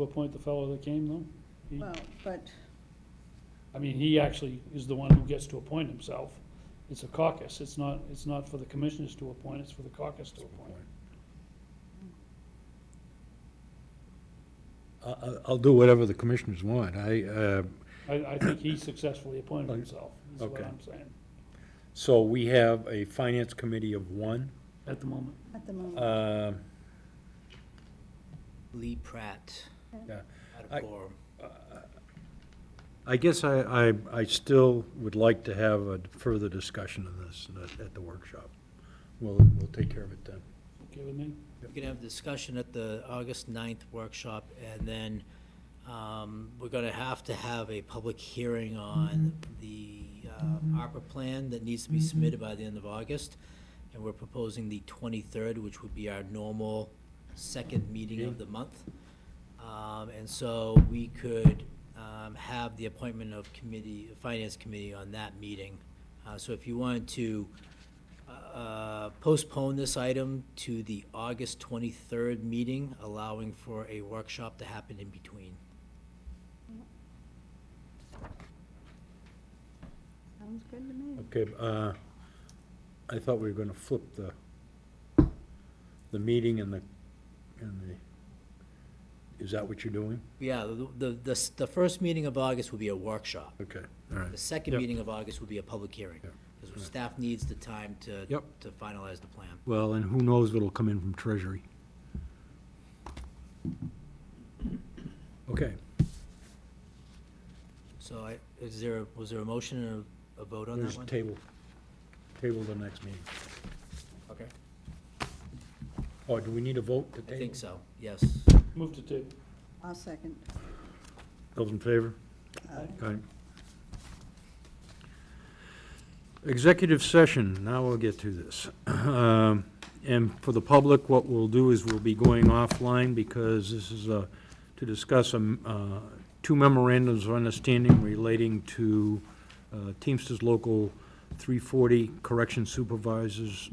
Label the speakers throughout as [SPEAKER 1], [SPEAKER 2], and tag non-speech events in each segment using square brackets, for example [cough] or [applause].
[SPEAKER 1] To appoint the fellow that came though? He-
[SPEAKER 2] Well, but,
[SPEAKER 1] I mean, he actually is the one who gets to appoint himself. It's a caucus, it's not, it's not for the commissioners to appoint, it's for the caucus to appoint.
[SPEAKER 3] I- I- I'll do whatever the commissioners want. I, uh,
[SPEAKER 1] I, I think he successfully appointed himself, is what
[SPEAKER 3] Okay.
[SPEAKER 1] I'm saying,
[SPEAKER 3] so we have a finance committee of one.
[SPEAKER 1] at the moment.
[SPEAKER 2] at the moment,
[SPEAKER 3] Uh,
[SPEAKER 4] Lee Pratt,
[SPEAKER 3] yeah.
[SPEAKER 4] out
[SPEAKER 3] I-
[SPEAKER 4] of Gorham.
[SPEAKER 3] I guess I, I, I still would like to have a further discussion of this at- at the workshop. We'll, we'll take care of it then.
[SPEAKER 1] Okay with me?
[SPEAKER 4] We're gonna have a discussion at the August 9th workshop, and then um, we're gonna have to have a public hearing on the um, ARPA plan that needs to be submitted by the end of August. And we're proposing the 23rd, which would be our normal second meeting of the month. Um, And so we could um, have the appointment of committee, Finance Committee on that meeting. Uh, So if you wanted to uh, postpone this item to the August 23rd meeting, allowing for a workshop to happen in between.
[SPEAKER 2] sounds good to me.
[SPEAKER 3] Okay, uh, I thought we were gonna flip the, the meeting and the, and the, is that what you're doing?
[SPEAKER 4] Yeah, the, the- the, s- the first meeting of August will be a workshop.
[SPEAKER 3] Okay, all
[SPEAKER 4] The
[SPEAKER 3] right.
[SPEAKER 4] second
[SPEAKER 3] Yep.
[SPEAKER 4] meeting of August will be a public hearing,
[SPEAKER 3] Yep.
[SPEAKER 4] because staff needs the time to,
[SPEAKER 3] Yep.
[SPEAKER 4] to finalize the plan.
[SPEAKER 3] Well, and who knows what'll come in from Treasury. Okay,
[SPEAKER 4] So I, is there, was there a motion and a- a vote on that
[SPEAKER 3] there's
[SPEAKER 4] one?
[SPEAKER 3] table, table the next meeting.
[SPEAKER 4] Okay.
[SPEAKER 3] Oh, do we need a vote to
[SPEAKER 4] I
[SPEAKER 3] table?
[SPEAKER 4] think so, yes.
[SPEAKER 1] Move to table.
[SPEAKER 2] I'll second.
[SPEAKER 3] Those in favor?
[SPEAKER 2] Aye.
[SPEAKER 3] Aye. Executive session, now we'll get to this. Um, And for the public, what we'll do is we'll be going offline because this is uh, to discuss um, uh, two memorandums of understanding relating to uh, Teamsters Local 340 Correction Supervisors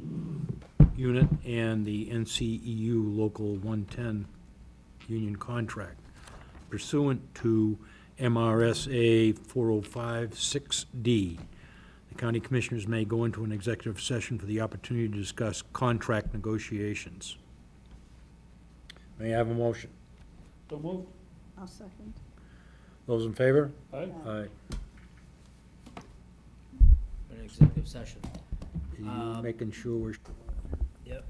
[SPEAKER 3] Unit and the NCEU Local 110 Union Contract pursuant to MRSA 4056D. The county commissioners may go into an executive session for the opportunity to discuss contract negotiations. May I have a motion?
[SPEAKER 1] So move.
[SPEAKER 2] I'll second.
[SPEAKER 3] Those in favor?
[SPEAKER 1] Aye.
[SPEAKER 3] Aye.
[SPEAKER 4] We're in executive session.
[SPEAKER 3] Are you
[SPEAKER 4] Um,
[SPEAKER 3] making sure we're,
[SPEAKER 4] Yep.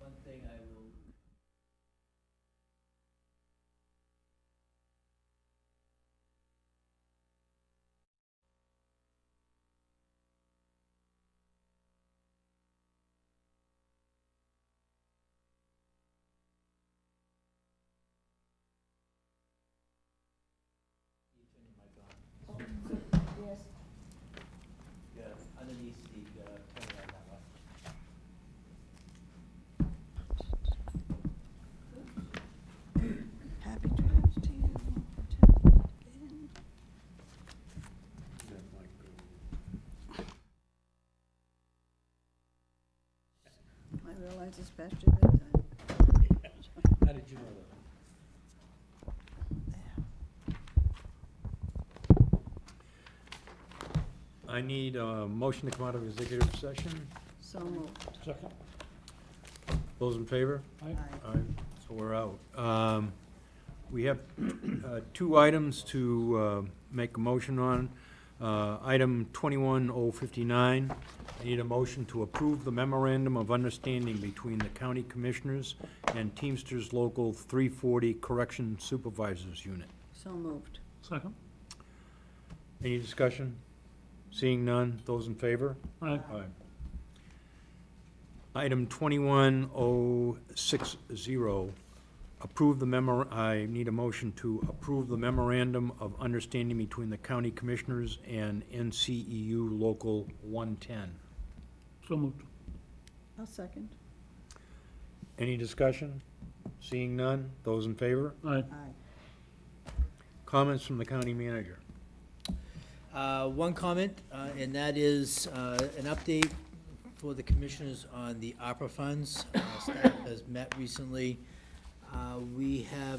[SPEAKER 4] One thing I will.
[SPEAKER 2] Yes.
[SPEAKER 4] Yeah, underneath the, uh, corner on that one.
[SPEAKER 2] Happy drives to you. Protect and- I realize it's past your bedtime.
[SPEAKER 4] How did you know that?
[SPEAKER 3] I need a motion to come out of executive session.
[SPEAKER 2] So moved.
[SPEAKER 1] Second.
[SPEAKER 3] Those in favor?
[SPEAKER 1] Aye.
[SPEAKER 2] Aye.
[SPEAKER 3] Aye, so we're out. Um, We have [clears throat] uh, two items to uh, make a motion on. Uh, Item 21059, I need a motion to approve the memorandum of understanding between the county commissioners and Teamsters Local 340 Correction Supervisors Unit.
[SPEAKER 2] So moved.
[SPEAKER 1] Second.
[SPEAKER 3] Any discussion? Seeing none, those in favor?
[SPEAKER 1] Aye.
[SPEAKER 3] Item 21060, approve the memor, I need a motion to approve the memorandum of understanding between the county commissioners and NCEU Local 110.
[SPEAKER 1] So moved.
[SPEAKER 2] I'll second.
[SPEAKER 3] Any discussion? Seeing none, those in favor?
[SPEAKER 1] Aye.
[SPEAKER 2] Aye.
[SPEAKER 3] Comments from the county manager?
[SPEAKER 4] Uh, One comment, uh, and that is uh, an update for the commissioners on the opera funds. Uh, Staff has met recently. Um, Uh, We have